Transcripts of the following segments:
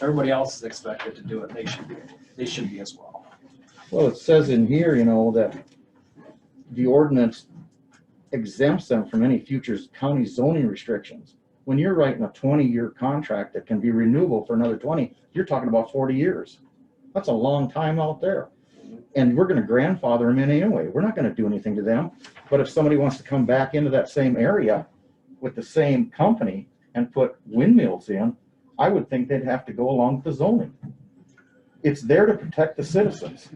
Everybody else is expected to do it. They should be, they should be as well. Well, it says in here, you know, that the ordinance exempts them from any future county zoning restrictions. When you're writing a twenty-year contract that can be renewable for another twenty, you're talking about forty years. That's a long time out there. And we're gonna grandfather them in anyway. We're not gonna do anything to them. But if somebody wants to come back into that same area with the same company and put windmills in, I would think they'd have to go along with the zoning. It's there to protect the citizens.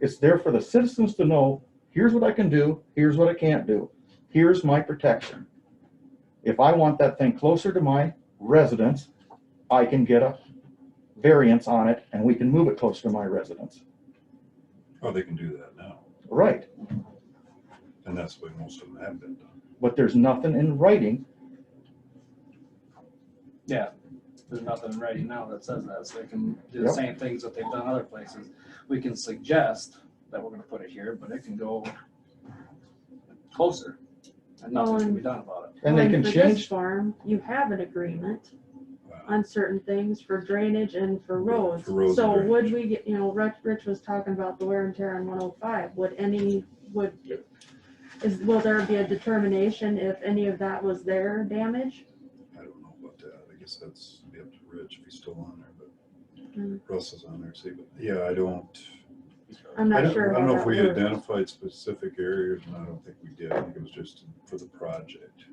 It's there for the citizens to know, here's what I can do, here's what I can't do, here's my protection. If I want that thing closer to my residence, I can get a variance on it and we can move it closer to my residence. Oh, they can do that now, Right, and that's the way most of them have been done. but there's nothing in writing. Yeah, there's nothing ready now that says that, so they can do the Yep. same things that they've done other places. We can suggest that we're gonna put it here, but it can go closer. And nothing can be done about it. And they Like can for this change, Farm, you have an agreement Wow. on certain things for drainage and for Yeah, roads. for roads So and would we get, you know, Rich, Rich was talking about the wear and tear on one oh five, would any, would, is, will there be a determination if any of that was their damage? I don't know about that. I guess that's be up to Rich if he's still on there, Mm. but Russ is on there, see, but yeah, I don't. I'm I not don't, sure. I don't know how if that we works. identified specific areas, and I don't think we did. I think it was just for the project.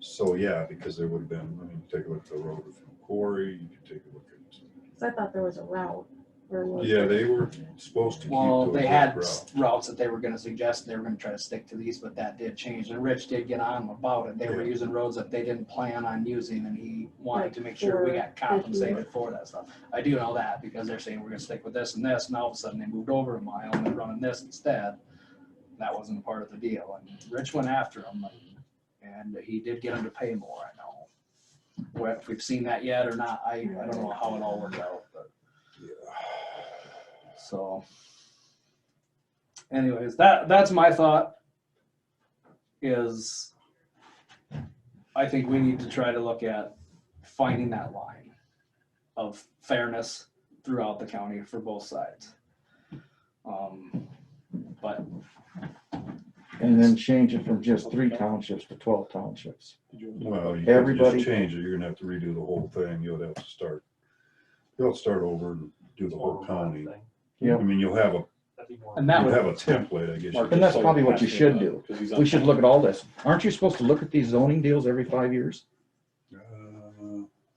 So, yeah, because there would have been, I mean, take a look at the road from Quarry, you could take a look at, 'Cause I thought there was a route, or was? yeah, they were supposed to keep. Well, those they had routes. routes that they were gonna suggest, they were gonna try to stick to these, but that did change, and Rich did get on about it. They were Yeah. using roads that they didn't plan on using, and he wanted to make sure we got Like for- compensated for that stuff. I do know that, because they're saying we're gonna stick with this and this, and all of a sudden they moved over a mile and they're running this instead. That wasn't a part of the deal, and Rich went after him, and he did get him to pay more, I know. Whether we've seen that yet or not, I, I don't know how it all worked out, but. So. Anyways, that, that's my thought. Is. I think we need to try to look at finding that line. Of fairness throughout the county for both sides. Um, but. and then change it from just three townships to twelve townships. Well, you could Everybody- just change it. You're gonna have to redo the whole thing. You'll have to start, you'll have to start over and do the whole county. Yeah. I mean, you'll have a, And that you'll would, have a template, I guess. you And that's could say. probably what you should do. We should look at all this. Aren't you supposed to look at these zoning deals every five years? Uh,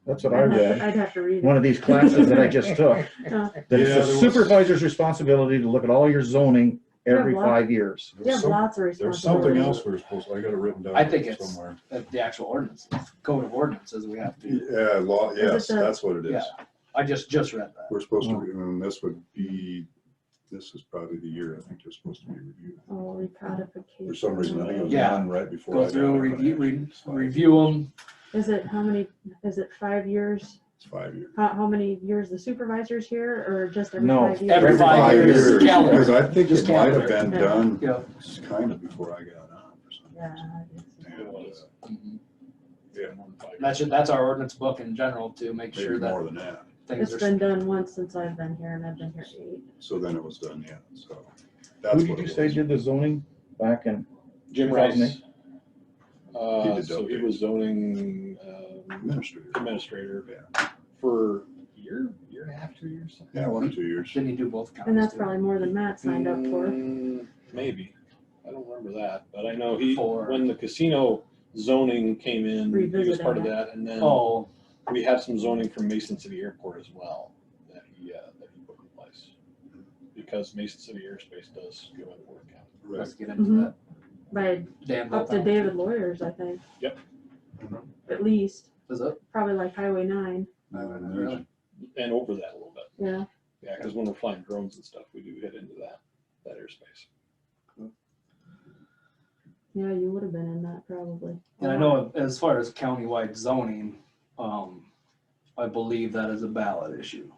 That's what I I'd read. have to- I'd have to read one it. of these classes that I just took. Yeah. That Yeah, it's there the was- supervisor's responsibility to look at all your zoning every Yeah, well- five years. You have some- lots of There's something responsibilities. else we we're supposed, to- I got it written down. I think it's- somewhere. at the actual ordinances, code of ordinances, we have to, Yeah, law, it yes, the- that's what it is. I just, just read that. We're supposed to, and this would be, this is probably the year I think they're supposed to be reviewed. Oh, recodification. For some reason, I think it was Yeah. on right before. I Go got through, there, and review, actually re- it's five- review them, Is it, how many, is it five years? It's five years. How, how many years the supervisor's here or just every No, five years? Every five years, calendar. Because I think Just it might have calendar. been done yeah. kind of before I got on for some Yeah, reason. And, uh, Mhm. Yeah. That's, that's our ordinance book in general to make sure Maybe that more than that. things It's are. been done once since I've been here and I've been here eight. So then it was done, yeah, so. Who that's did what you it say was. did the zoning back in? Jim Rice. Uh, so he delegate. was zoning um, Administrator. administrator for a year, year and a half, two years. something. Yeah, one, or two years. Didn't he do both counties? And that's too? probably more than Matt signed up for. Mm, Maybe. I don't remember that, but I know he, Four. when the casino zoning came in, he was Revisited part of that. And then Oh, we have some zoning from Mason City Airport as well that he, uh, that he put in place. Because Mason City Airspace does go in Warren County. Right. let's get into Mhm. that. By Damn. up to David lawyers, I think. Yep. At least, Is it? probably like Highway nine, Really? And over that a little bit. yeah. Yeah, because when we're flying drones and stuff, we do hit into that, that airspace. Yeah, you would have been in that probably. And I know as far as countywide zoning, um, I believe that is a ballot issue.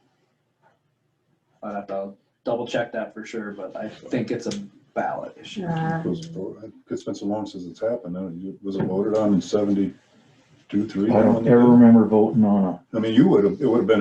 I'd have to double check that for sure, but I think it's a ballot issue. Uh, It was- It's been so long since it's happened. uh, you- Was it voted on in seventy, two, three. I don't ever remember voting on a I mean, you would have, it would have been